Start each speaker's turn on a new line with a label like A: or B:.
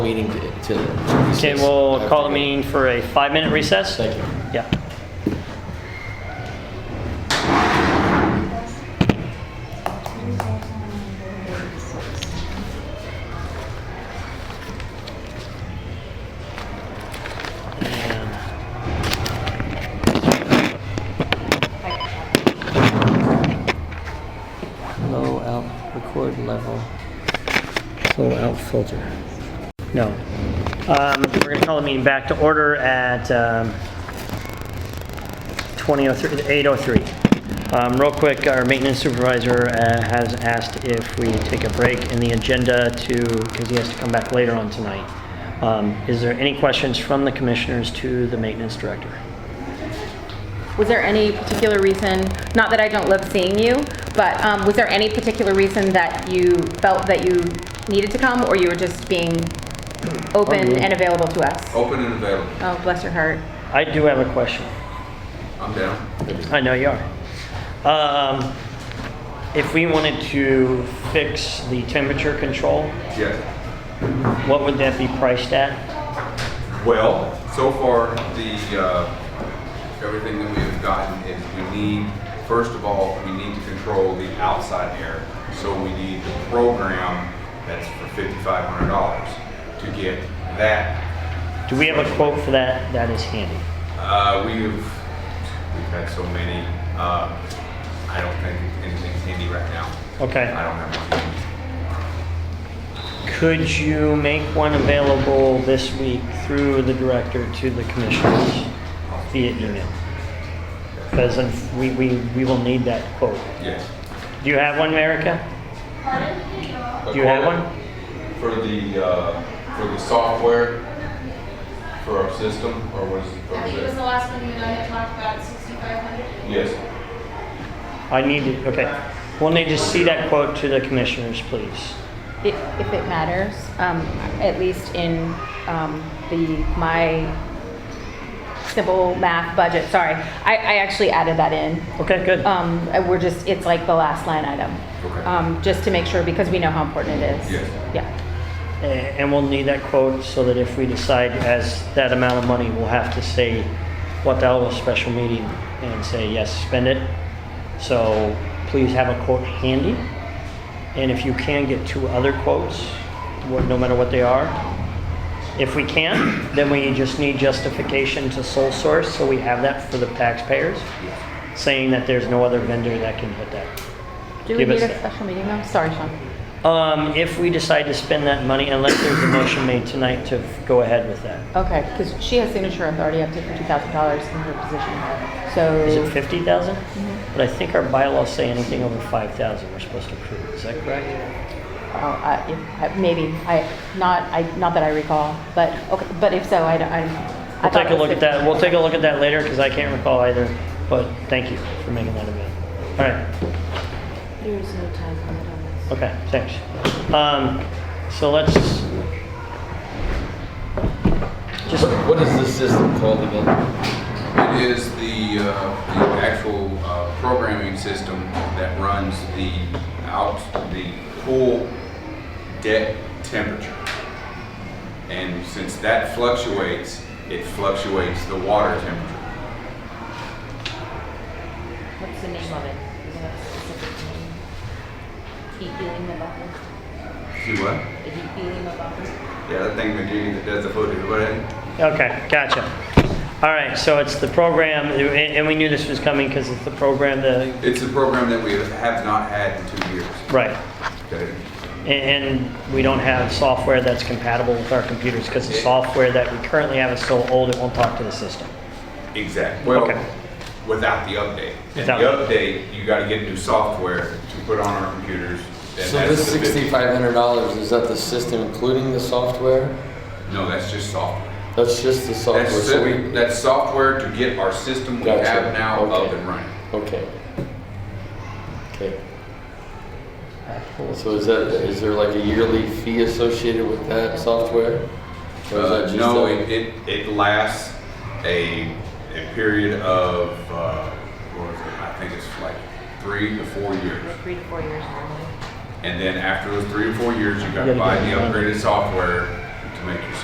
A: meeting to- to.
B: Okay, we'll call the meeting for a five-minute recess.
A: Thank you.
B: Yeah.
A: Low out, record level. Low out filter.
B: No. Um, We're going to call the meeting back to order at um, 20:03, 8:03. Um, Real quick, our maintenance supervisor uh, has asked if we take a break in the agenda to, because he has to come back later on tonight. Um, Is there any questions from the commissioners to the maintenance director?
C: Was there any particular reason, not that I don't love seeing you, but um, was there any particular reason that you felt that you needed to come, or you were just being
D: Oh,
C: open and available to us?
D: Open and available.
C: Oh, bless your heart.
B: I do have a question.
D: I'm down.
B: I know you are. Um, If we wanted to fix the temperature control,
D: Yes.
B: What would that be priced at?
D: Well, so far, the, uh, everything that we have gotten is we need, first of all, we need to control the outside air. So we need the program that's for fifty-five hundred dollars to get that.
B: Do we have a quote for that? That is handy.
D: Uh, we've, we've had so many, uh, I don't think anything's handy right now. I
B: Okay.
D: don't have one.
B: Could you make one available this week through the director to the commissioners via email? Because we, we, we will need that quote.
D: Yes.
B: Do you have one, Erica? Do you have one?
D: For the, uh, for the software, for our system, or was, or
E: I
D: was
E: think it was the
D: it?
E: last one you and I had talked about, sixty-five hundred.
D: Yes,
B: I need it, okay. We'll need to see that quote to the commissioners, please.
C: I- If it matters, um, at least in um, the, my simple math budget, sorry, I I actually added that in.
B: Okay, good.
C: Um, and We're just, it's like the last line item.
D: Okay.
C: Um, Just to make sure, because we know how important it is.
D: Yes.
C: Yeah.
B: A- eh, And we'll need that quote so that if we decide as that amount of money, we'll have to say what the hell was special meeting and say, yes, spend it. So please have a quote handy. And if you can, get two other quotes, wha- no matter what they are. If we can, then we just need justification to sole source, so we have that for the taxpayers, saying that there's no other vendor that can hit that.
C: Do we
B: Give us
C: need a
B: that.
C: special meeting though? Sorry, Sean.
B: Um, if we decide to spend that money, unless there's a motion made tonight to f- go ahead with that.
C: Okay, because she has signature authority up to fifty thousand dollars in her position.
B: Is it
C: So,
B: fifty thousand?
C: Mm-hmm.
B: But I think our bylaws say anything over five thousand, we're supposed to approve, is that correct?
C: well, uh, I- if- I- maybe, I, not, I, not that I recall, but, okay, but if so, I, don't- I. I
B: We'll
C: thought
B: take a
C: it was
B: look at that,
C: 50.
B: we'll take a look at that later, because I can't recall either, but thank you for making that event. All right,
C: There's no time limit on this.
B: okay, thanks. Um, so let's, just,
A: What what is this system called again?
D: it is the, uh, the actual, uh, programming system that runs the out, the pool deck temperature. And since that fluctuates, it fluctuates the water temperature.
C: What's the name of it? Is it a specific name? Heat healing the buffer?
D: See what?
C: The heat healing the buffer?
D: Yeah, that thing Medina that does the footage, what,
B: okay, gotcha. All right, so it's the program, and, and we knew this was coming because it's the program, the,
D: it's a program that we have not had in two years.
B: right.
D: Okay.
B: And and we don't have software that's compatible with our computers because the software that we currently have is so old it won't talk to the system.
D: Exactly. Well,
B: Okay.
D: without the update. And
B: Without-
D: the update, you gotta get new software to put on our computers. and
A: So
D: that's
A: this
D: the big-
A: sixty-five hundred dollars, is that the system including the software?
D: No, that's just software.
A: That's just the software,
D: That's,
A: so
D: si-
A: we,
D: that's software to get our system we
A: Gotcha.
D: have now up
A: Okay.
D: and running.
A: okay. Okay, so is that, is there like a yearly fee associated with that software? Or is that
D: Uh,
A: just
D: no,
A: a-
D: it, it, it lasts a, a period of, uh, what is it? I think it's like three to four years.
C: Three to four years normally.
D: And then after those three or four years, you
B: You
D: gotta
B: gotta
D: buy
B: get
D: the
B: it done.
D: upgraded software